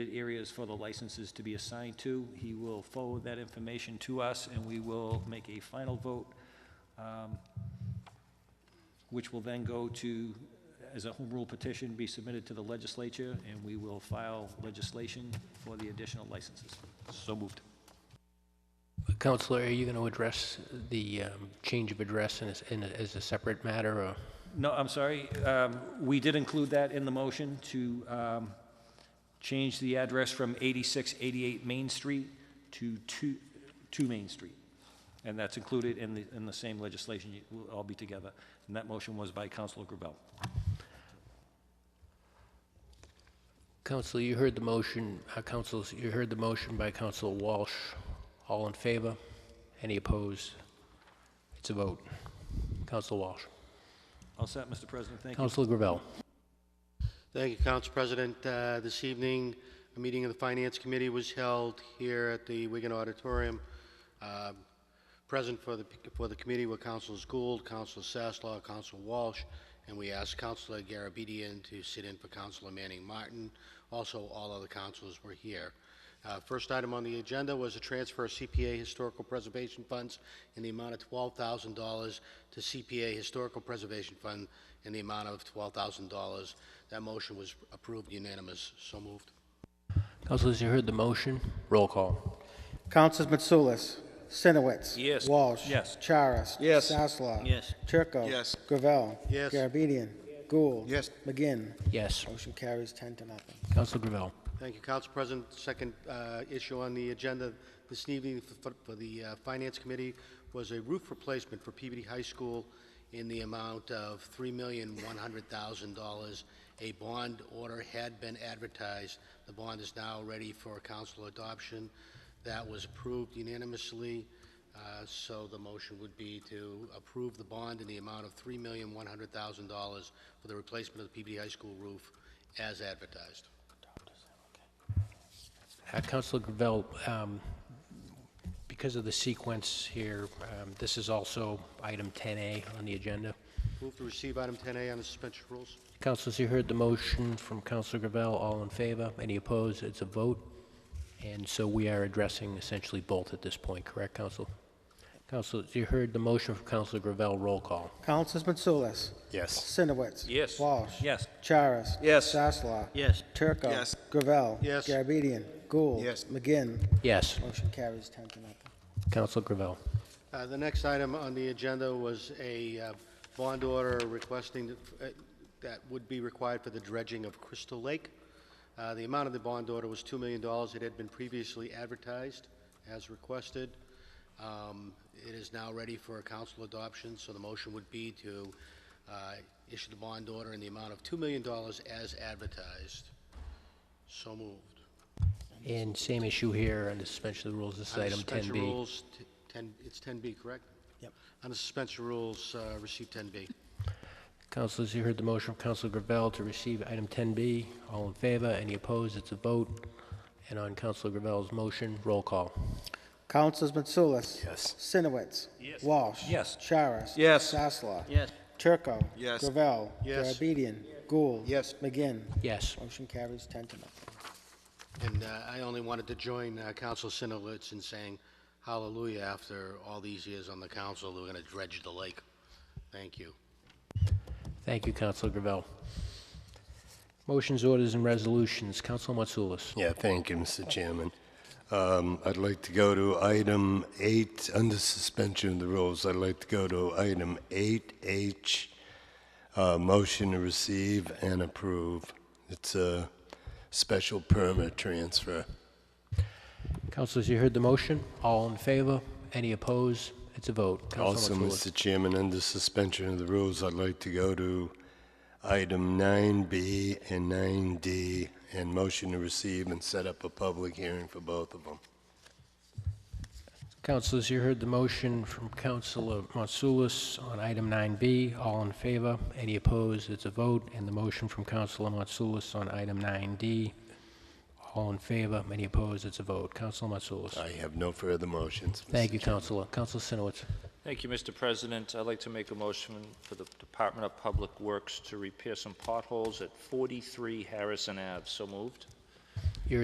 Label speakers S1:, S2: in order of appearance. S1: areas for the licenses to be assigned to. He will forward that information to us, and we will make a final vote, um, which will then go to, as a home rule petition, be submitted to the legislature, and we will file legislation for the additional licenses.
S2: So moved.
S3: Counselor, are you going to address the um, change of address in a s- in a- as a separate matter, or?
S1: No, I'm sorry, um, we did include that in the motion to um, change the address from 8688 Main Street to 2, 2 Main Street. And that's included in the, in the same legislation, It will all be together. And that motion was by Counselor Gravel.
S3: Counselor, you heard the motion, uh, counsels, you heard the motion by Counselor Walsh. All in favor? Any opposed? It's a vote. Counselor Walsh.
S1: All set, Mr. President, thank you.
S3: Counselor Gravel.
S4: Thank you, Council President. Uh, This evening, a meeting of the Finance Committee was held here at the Wigan Auditorium. Um, Present for the, for the committee were Councilors Gould, Councilor Sasslaw, Council Walsh, and we asked Councilor Garabedian to sit in for Councilor Manning Martin. Also, all other councilors were here. Uh, First item on the agenda was a transfer of CPA Historical Preservation Funds in the amount of $12,000 to CPA Historical Preservation Fund in the amount of $12,000. That motion was approved unanimous. So moved.
S3: Counselors, you heard the motion. Roll call.
S5: Councilors Mitsoulas, Sinowitz.
S1: Yes.
S5: Walsh.
S1: Yes.
S5: Charis.
S6: Yes.
S5: Sasslaw.
S2: Yes.
S5: Turco.
S6: Yes.
S5: Gravel.
S4: Yes.
S5: Garabedian. Gould.
S6: Yes.
S5: McGinn.
S3: Yes.
S5: Motion carries ten to nothing.
S3: Counselor Gravel.
S4: Thank you, Council President. Second uh, issue on the agenda this evening for- for the uh, Finance Committee was a roof replacement for PBD High School in the amount of $3,100,000. A bond order had been advertised. The bond is now ready for council adoption. That was approved unanimously, Uh, so the motion would be to approve the bond in the amount of $3,100,000 for the replacement of the PBD High School roof as advertised.
S3: Uh, Counselor Gravel, um, because of the sequence here, um, this is also item 10A on the agenda.
S4: Move to receive item 10A on the suspension of rules.
S3: Councilors, you heard the motion from Councilor Gravel, all in favor, any opposed, it's a vote. And so we are addressing essentially both at this point, correct, Council? Councilors, you heard the motion from Councilor Gravel, roll call.
S5: Councilors Mitsoulas.
S6: Yes.
S5: Sinowitz.
S1: Yes.
S5: Walsh.
S1: Yes.
S5: Charis.
S6: Yes.
S5: Sasslaw.
S2: Yes.
S5: Turco.
S6: Yes.
S5: Gravel.
S4: Yes.
S5: Garabedian. Gould.
S6: Yes.
S5: McGinn.
S3: Yes,
S5: Motion carries ten to nothing.
S3: Councilor Gravel.
S4: Uh, The next item on the agenda was a uh, bond order requesting that- uh, that would be required for the dredging of Crystal Lake. Uh, The amount of the bond order was $2 million. It had been previously advertised as requested. Um, It is now ready for a council adoption, so the motion would be to uh, issue the bond order in the amount of $2 million as advertised. So moved.
S3: And same issue here under suspension of the rules, this is
S4: Under
S3: item
S4: suspension
S3: 10B.
S4: rules, t- 10, it's 10B, correct?
S5: Yep.
S4: Under suspension rules, uh, receive 10B.
S3: Councilors, you heard the motion from Councilor Gravel to receive item 10B, all in favor, any opposed, it's a vote. And on Councilor Gravel's motion, roll call.
S5: Councilors Mitsoulas.
S6: Yes.
S5: Sinowitz. Yes. Walsh.
S1: Yes.
S5: Charis.
S6: Yes.
S5: Sasslaw.
S2: Yes.
S5: Turco.
S6: Yes.
S5: Gravel.
S4: Yes.
S5: Garabedian. Gould.
S6: Yes.
S5: McGinn.
S3: Yes.
S5: Motion carries ten to nothing.
S4: And uh, I only wanted to join uh, Council Sinowitz in saying hallelujah after all these years on the council, we're going to dredge the lake. Thank you.
S3: Thank you, Counselor Gravel. Motions, orders, and resolutions. Counselor Matsoulis.
S7: Yeah, thank you, Mr. Chairman. Um, I'd like to go to item eight, under suspension of the rules, I'd like to go to item eight H, uh, motion to receive and approve. It's a special permit transfer.
S3: Counselors, you heard the motion. All in favor? Any opposed? It's a vote.
S7: Also,
S3: Counselor Matsoulis.
S7: Mr. Chairman, under suspension of the rules, I'd like to go to item 9B and 9D, and motion to receive and set up a public hearing for both of them.
S3: Counselors, you heard the motion from Counselor Matsoulis on item 9B. All in favor? Any opposed? It's a vote. And the motion from Counselor Matsoulis on item 9D. All in favor? Any opposed? It's a vote. Counselor Matsoulis.
S7: I have no further motions. Mr.
S3: Thank you, Counselor. Counselor Sinowitz.
S8: Thank you, Mr. President. I'd like to make a motion for the Department of Public Works to repair some potholes at 43 Harrison Ave. So moved.